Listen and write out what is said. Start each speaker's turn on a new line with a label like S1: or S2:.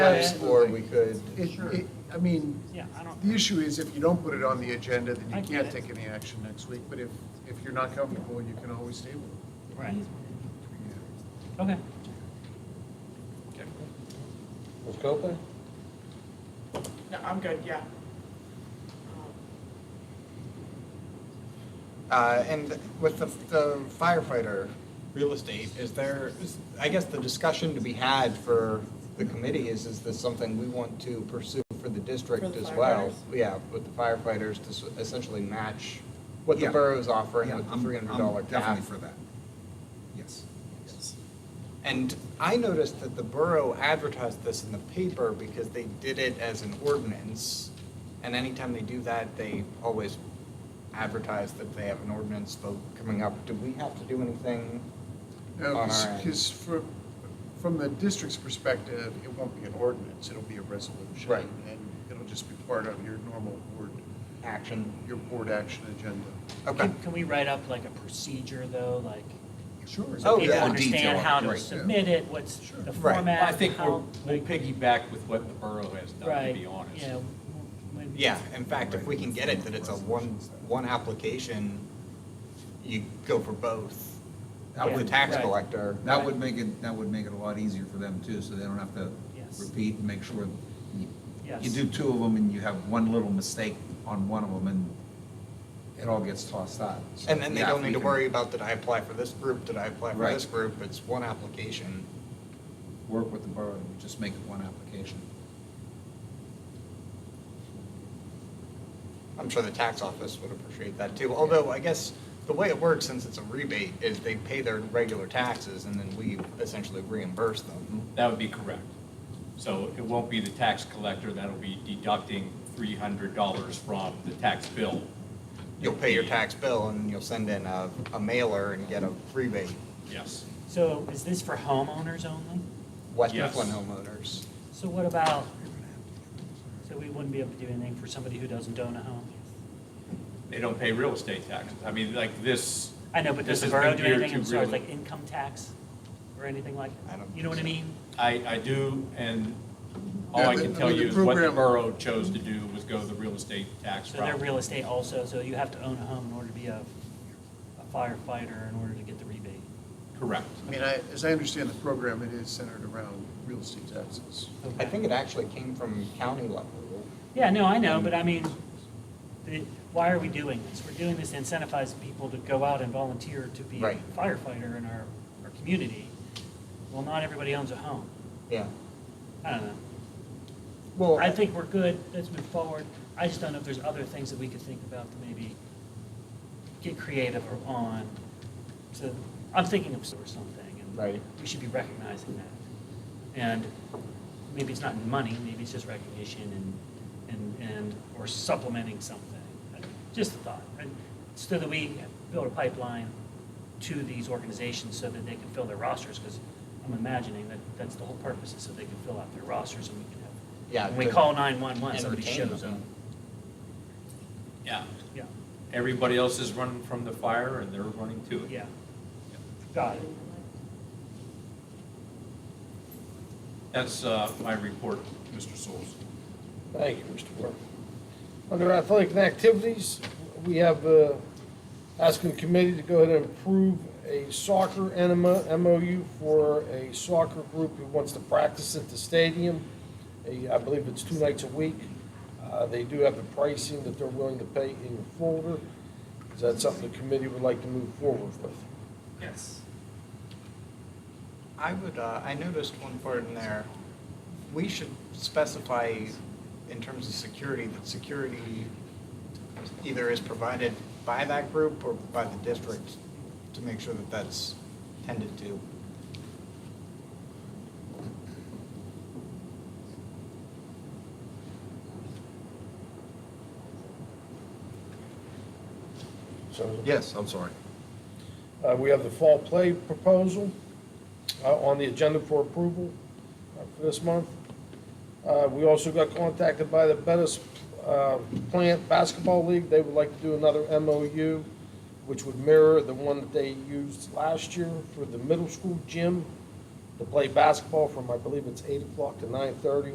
S1: Yes, Or we could,
S2: It, it, I mean,
S3: Yeah, I don't,
S2: the issue is if you don't put it on the agenda, then
S3: I
S2: you
S3: get
S2: can't
S3: it.
S2: take any action next week, but if, if you're not comfortable, you can always table it.
S3: right. Okay.
S1: Ms. Copeland?
S4: No, I'm good, yeah.
S5: Uh, and with the, the firefighter real estate, is there, is, I guess the discussion to be had for the committee is, is this something we want to pursue for the district
S4: For the
S5: as well?
S4: firefighters?
S5: Yeah, with the firefighters to s- essentially match what the
S6: Yeah.
S5: borough's offering
S6: Yeah,
S5: with the
S6: I'm-
S5: three hundred
S6: I'm
S5: dollar cap.
S6: Definitely for that. Yes.
S5: And I noticed that the borough advertised this in the paper because they did it as an ordinance. And anytime they do that, they always advertise that they have an ordinance vote coming up. Do we have to do anything on
S2: Now,
S5: our end?
S2: because from, from the district's perspective, it won't be an ordinance, it'll be a resolution.
S5: Right.
S2: And it'll just be part of your normal board,
S5: Action?
S2: your board action agenda.
S5: Okay.
S3: Can, can we write up like a procedure though, like,
S2: Sure.
S3: so
S5: Oh,
S3: people
S5: yeah.
S3: understand
S6: Detail,
S3: how to
S6: right.
S3: submit it, what's
S2: Sure.
S3: the
S5: Right.
S3: format?
S7: Well, I think we're,
S3: how-
S7: we'll piggyback with what the borough has done, to
S3: Right,
S7: be honest.
S3: yeah. when-
S5: Yeah, in fact, if we can get it that it's a one, one application, you go for both. Out with the tax
S3: Right.
S5: collector.
S6: That would make it, that would make it a lot easier for them too, so they don't have to
S3: Yes.
S6: repeat and make sure. you- You
S3: Yes.
S6: do two of them and you have one little mistake on one of them and it all gets tossed out. So,
S5: And then they
S6: yeah,
S5: don't
S6: we
S5: need to
S6: can-
S5: worry about, did I apply for this group, did I apply for
S6: Right.
S5: this group? It's one application.
S6: Work with the borough and just make it one application.
S5: I'm sure the tax office would appreciate that too, although I guess the way it works, since it's a rebate, is they pay their regular taxes and then we essentially reimburse them.
S7: That would be correct. So it won't be the tax collector that'll be deducting three hundred dollars from the tax bill.
S5: You'll pay your tax bill and you'll send in a, a mailer and get a rebate.
S7: Yes.
S3: So is this for homeowners only?
S5: West
S7: Yes.
S5: Mifflin homeowners.
S3: So what about, so we wouldn't be able to do anything for somebody who doesn't own a home?
S7: They don't pay real estate taxes. I mean, like this.
S3: I know, but does
S7: This
S3: the
S7: has
S3: borough
S7: been
S3: do
S7: geared
S3: anything
S7: to
S3: as far as
S7: really-
S3: like income tax or anything like,
S5: I don't
S3: you know what I
S5: think
S3: mean?
S7: I, I do, and all
S2: Yeah,
S7: I
S2: the-
S7: can
S2: I
S7: tell
S2: mean, the
S7: you is what the
S2: program-
S7: borough chose to do was go the real estate tax
S3: So they're
S7: route.
S3: real estate also, so you have to own a home in order to be a a firefighter in order to get the rebate.
S7: Correct.
S2: I mean, I, as I understand the program, it is centered around real estate taxes.
S5: I think it actually came from county level.
S3: Yeah, no, I know, but I mean, the- why are we doing this? We're doing this to incentivize people to go out and volunteer to be a
S5: Right.
S3: firefighter in our, our community. Well, not everybody owns a home.
S5: Yeah.
S3: I don't know.
S5: Well,
S3: I think we're good, let's move forward. I just don't know if there's other things that we could think about to maybe get creative or on. So, I'm thinking of sort of something, and
S5: Right.
S3: we should be recognizing that. And maybe it's not money, maybe it's just recognition and, and, and, or supplementing something. Just a thought, and so that we build a pipeline to these organizations so that they can fill their rosters, because I'm imagining that that's the whole purpose, is so they can fill out their rosters and we can have
S5: Yeah,
S3: when we
S5: good.
S3: call 911,
S5: And
S3: somebody
S5: retain
S3: shows up.
S5: them.
S7: Yeah.
S3: Yeah,
S7: Everybody else is running from the fire and they're running to it.
S3: yeah. Got it.
S7: That's, uh, my report, Mr. Souls.
S1: Thank you, Mr. Burke. Under athletic and activities, we have, uh, asking committee to go ahead and approve a soccer enema, MOU for a soccer group who wants to practice at the stadium. A- I believe it's two nights a week. Uh, they do have the pricing that they're willing to pay in your folder. Is that something the committee would like to move forward with?
S3: Yes.
S5: I would, uh, I noticed one part in there, we should specify in terms of security, that security either is provided by that group or by the district to make sure that that's tended to.
S1: So
S6: Yes, I'm sorry.
S1: Uh, We have the fall play proposal uh, on the agenda for approval uh, for this month. Uh, We also got contacted by the Bettis uh, Plant Basketball League. They would like to do another MOU, which would mirror the one that they used last year for the middle school gym to play basketball from, I believe it's 8 o'clock to 9:30